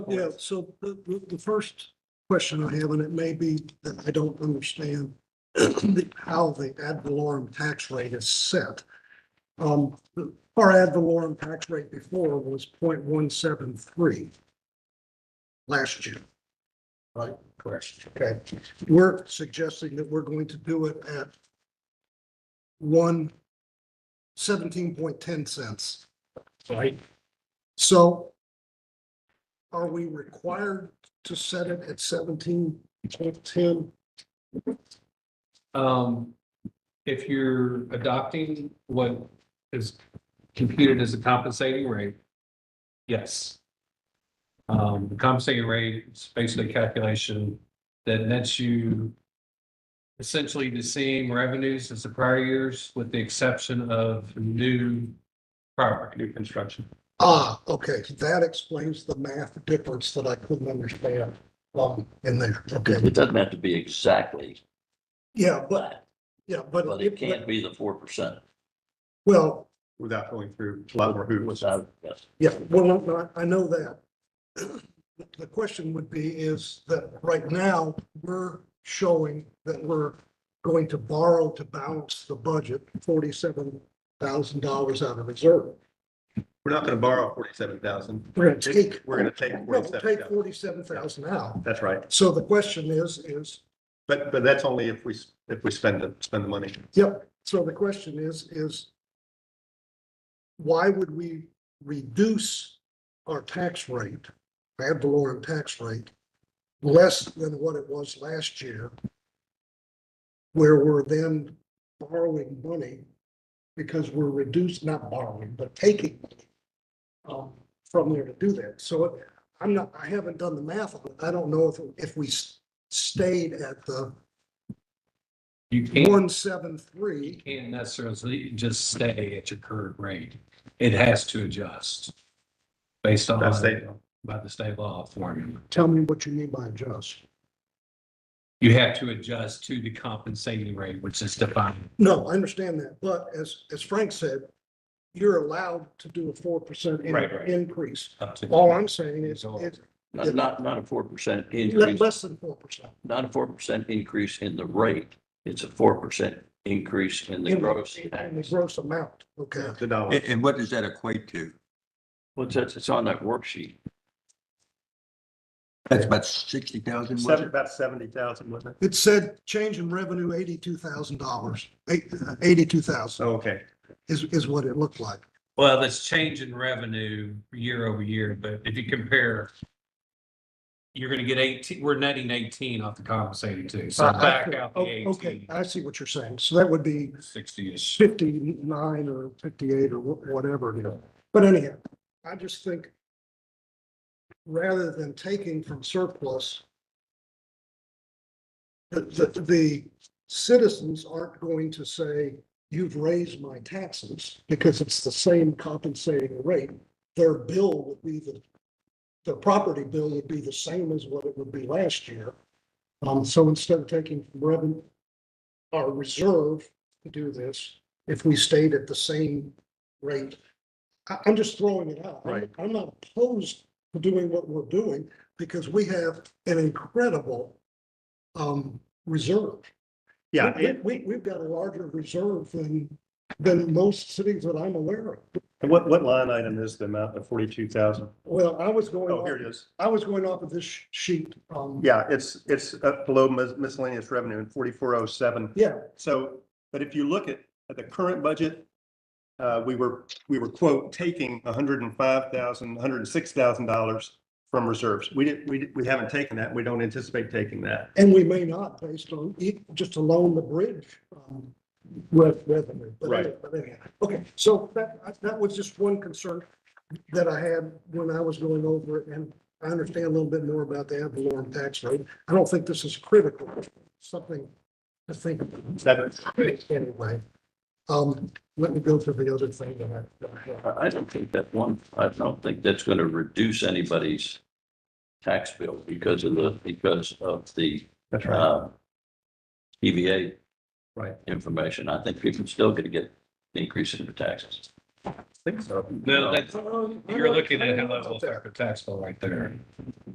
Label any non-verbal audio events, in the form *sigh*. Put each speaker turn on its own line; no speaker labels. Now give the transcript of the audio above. Yeah, so the, the, the first question I have, and it may be that I don't understand the- how the ad valorem tax rate is set. Um, the- our ad valorem tax rate before was 0.173 last year. Right, correct. Okay, we're suggesting that we're going to do it at one seventeen point ten cents. Right. So are we required to set it at seventeen point ten?
Um, if you're adopting what is computed as a compensating rate, yes. Um, the compensating rate is basically a calculation that nets you essentially the same revenues as the prior years with the exception of new property, new construction.
Ah, okay, that explains the math difference that I couldn't understand um, in there. Okay,
It doesn't have to be exactly
yeah, but,
flat,
yeah, but.
but it can be the four percent
Well,
without going through a lot more hoops.
without, yes.
yeah, well, no, no, I I know that. *clears throat* The question would be is that right now, we're showing that we're going to borrow to balance the budget forty-seven thousand dollars out of reserve.
We're not going to borrow forty-seven thousand.
We're gonna take.
We're gonna take
No, we'll
forty-seven
Take
thousand.
forty-seven thousand out.
That's right.
So the question is, is,
But, but that's only if we, s- if we spend the, spend the money.
yep, so the question is, is why would we reduce our tax rate, ad valorem tax rate, less than what it was last year? Where we're then borrowing money because we're reduced, not borrowing, but taking money, um, from there to do that. So it- I'm not, I haven't done the math on it. I don't know if, if we s- stayed at the
You can't,
one seven
you
three.
can't necessarily just stay at your current rate. It has to adjust based on
That's state law.
by the state law formula.
Tell me what you mean by adjust.
You have to adjust to the compensating rate, which is defined.
No, I understand that, but as, as Frank said, you're allowed to do a four percent
Right, right.
increase.
up to-
All I'm saying is,
Go.
it's
Not, not, not a four percent
le-
increase,
less than four percent.
not a four percent increase in the rate. It's a four percent increase in the gross.
In the gross amount, okay.
The dollar.
And, and what does that equate to?
What's that? It's on that worksheet.
That's about sixty thousand, was
Seven,
it?
about seventy thousand, wasn't
It said change in revenue eighty-two thousand dollars, uh, eighty-two
it?
thousand
Oh, okay.
is, is what it looked like.
Well, that's change in revenue year over year, but if you compare, you're gonna get eighteen, we're netting eighteen off the compensating too. So back out the
Oh, Okay,
eighteen,
I see what you're saying. So that would be
sixty-ish.
fifty-nine or fifty-eight or wh- whatever, you know. But anyhow, I just think rather than taking from surplus, the, the, the citizens aren't going to say, you've raised my taxes because it's the same compensating rate. Their bill would be the, their property bill would be the same as what it would be last year. Um, so instead of taking from revenue, our reserve to do this if we stayed at the same rate. I, I'm just throwing it out. I'm-
Right.
I'm not opposed to doing what we're doing because we have an incredible um, reserve.
Yeah,
We-
and
We, we- we've got a larger reserve than, than most cities that I'm aware of.
and what, what line item is the amount of forty-two thousand?
Well, I was going,
Oh, here
off-
it is.
I was going off of this sheet. um,
Yeah, it's, it's up below mis- miscellaneous revenue in forty-four oh seven.
Yeah,
So, but if you look at, at the current budget, uh, we were, we were quote, taking hundred and five thousand, hundred and six thousand dollars from reserves. We didn't, we, didn't- we haven't taken that. We don't anticipate taking that.
and we may not based on, e- just alone the bridge um, re- revenue. But
Right.
anyway- but anyhow, Okay, so that, that was just one concern that I had when I was going over it. And I understand a little bit more about the ad valorem tax rate. I don't think this is critical, something to think about.
That,
Anyway, um, let me go through the other thing that I- that I have.
I, I don't think that one, I don't think that's gonna reduce anybody's tax bill because of the, because of the,
that's right.
uh, EVA
Right.
information. I think people still gonna get increase in their taxes.
think so. No, that's, you're looking at how that will affect the tax bill right there.